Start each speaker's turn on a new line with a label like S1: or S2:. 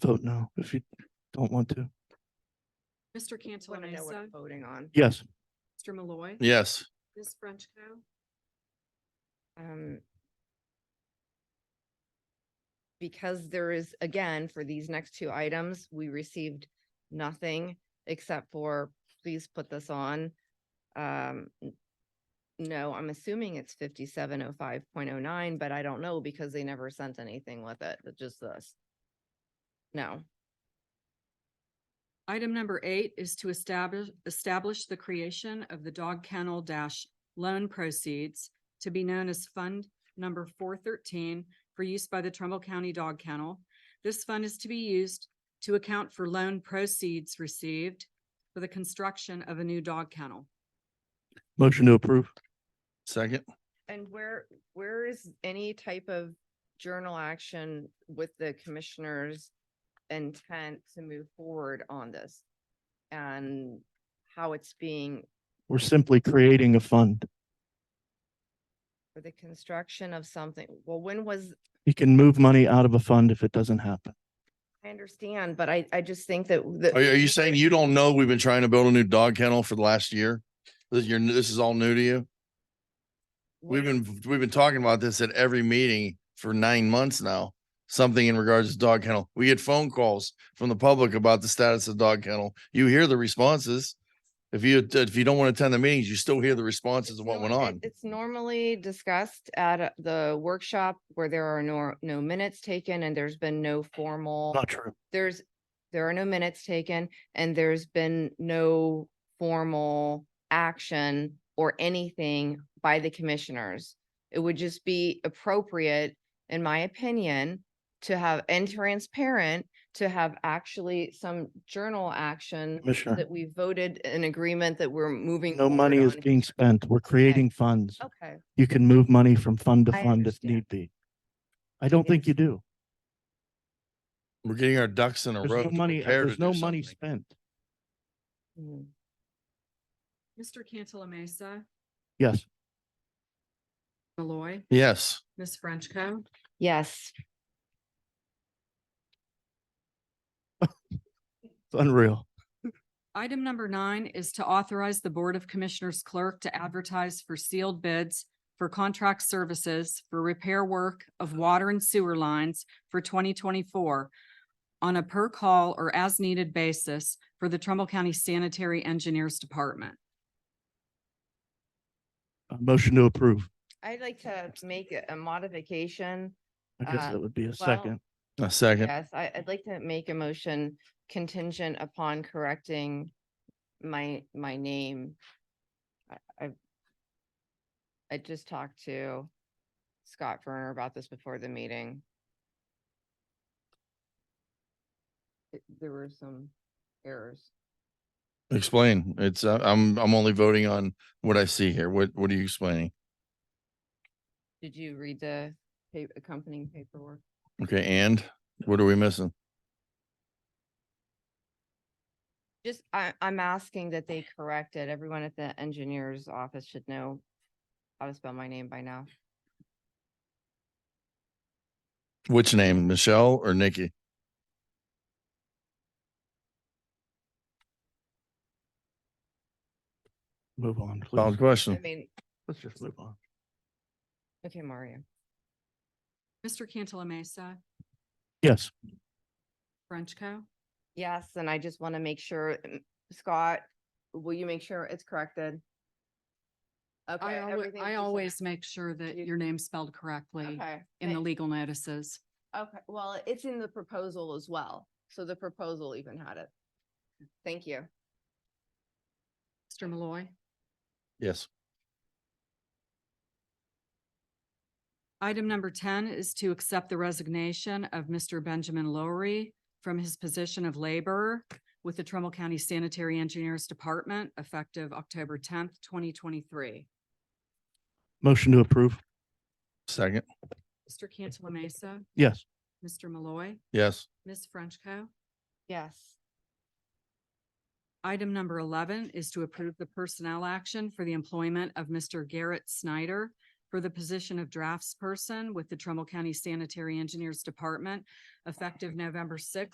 S1: vote no if you don't want to.
S2: Mr.
S3: Want
S2: Cantala
S3: to know what
S2: Mesa,
S3: I'm voting on.
S1: Yes,
S2: Mr. Malloy.
S4: Yes,
S2: Ms. Frenchco.
S3: um, Because there is, again, for these next two items, we received nothing except for, please put this on. Um, n- no, I'm assuming it's fifty-seven oh five point oh nine, but I don't know because they never sent anything with it, it's just this. No,
S2: Item number eight is to establish, establish the creation of the dog kennel dash loan proceeds to be known as Fund Number four thirteen for use by the Trumbull County Dog Kennel. This fund is to be used to account for loan proceeds received for the construction of a new dog kennel.
S1: motion to approve.
S4: second,
S3: and where, where is any type of journal action with the commissioner's intent to move forward on this? And how it's being,
S1: We're simply creating a fund.
S3: for the construction of something, well, when was,
S1: You can move money out of a fund if it doesn't happen.
S3: I understand, but I, I just think that.
S4: are, are you saying you don't know we've been trying to build a new dog kennel for the last year? This, you're, this is all new to you? We've been, we've been talking about this at every meeting for nine months now. Something in regards to dog kennel. We get phone calls from the public about the status of dog kennel. You hear the responses. If you, if you don't want to attend the meetings, you still hear the responses of
S3: No,
S4: what went
S3: it-
S4: on.
S3: It's normally discussed at a- the workshop where there are no, no minutes taken and there's been no formal.
S1: Not true.
S3: there's, there are no minutes taken and there's been no formal action or anything by the commissioners. It would just be appropriate, in my opinion, to have, and transparent, to have actually some journal action
S1: Commissioner,
S3: that we voted an agreement that we're moving.
S1: no money
S3: forward
S1: is
S3: on.
S1: being spent. We're creating funds.
S3: Okay,
S1: You can move money from fund to
S3: Oh. I
S1: fund if
S3: understand.
S1: need be. I don't think you do.
S4: We're getting our ducks in a row.
S1: There's no
S4: to
S1: money,
S4: prepare to
S1: there's
S4: do
S1: no money
S4: something.
S1: spent.
S3: Mm.
S2: Mr. Cantala Mesa,
S1: Yes,
S2: Malloy,
S4: Yes,
S2: Ms. Frenchco.
S3: yes,
S1: it's unreal.
S2: Item number nine is to authorize the Board of Commissioners clerk to advertise for sealed bids for contract services for repair work of water and sewer lines for twenty twenty-four on a per call or as needed basis for the Trumbull County Sanitary Engineers Department.
S1: A Uh, Motion to approve.
S3: I'd like to make a- a modification.
S1: I guess
S3: Uh,
S1: that would be a
S3: well,
S1: second.
S4: a second.
S3: Yes, I, I'd like to make a motion contingent upon correcting my, my name. I, I- I just talked to Scott Verner about this before the meeting. It- There were some errors.
S4: Explain. It's, uh, I'm, I'm only voting on what I see here. What, what are you explaining?
S3: Did you read the pa- accompanying paperwork?
S4: Okay, and what are we missing?
S3: Just, I, I'm asking that they correct it. Everyone at the engineer's office should know how to spell my name by now.
S4: Which name, Michelle or Nikki?
S1: Move on,
S4: Solid
S1: please.
S3: I
S4: question.
S3: mean,
S1: Let's just move on.
S3: okay, Mario.
S2: Mr. Cantala Mesa,
S1: Yes.
S2: Frenchco.
S3: Yes, and I just want to make sure, mm, Scott, will you make sure it's corrected? Okay.
S2: I always,
S3: everything's
S2: I
S3: just-
S2: always make sure that
S3: You-
S2: your name's spelled correctly
S3: Okay,
S2: in the
S3: thank-
S2: legal notices.
S3: Okay, well, it's in the proposal as well, so the proposal even had it. Thank you.
S2: Mr. Malloy.
S4: Yes.
S2: Item number ten is to accept the resignation of Mr. Benjamin Lowry from his position of laborer with the Trumbull County Sanitary Engineers Department effective October tenth, twenty twenty-three.
S1: Motion to approve.
S4: Second.
S2: Mr. Cantala Mesa,
S1: Yes.
S2: Mr. Malloy,
S4: Yes.
S2: Ms. Frenchco.
S3: Yes,
S2: Item number eleven is to approve the personnel action for the employment of Mr. Garrett Snyder for the position of draftsperson with the Trumbull County Sanitary Engineers Department effective November sixth,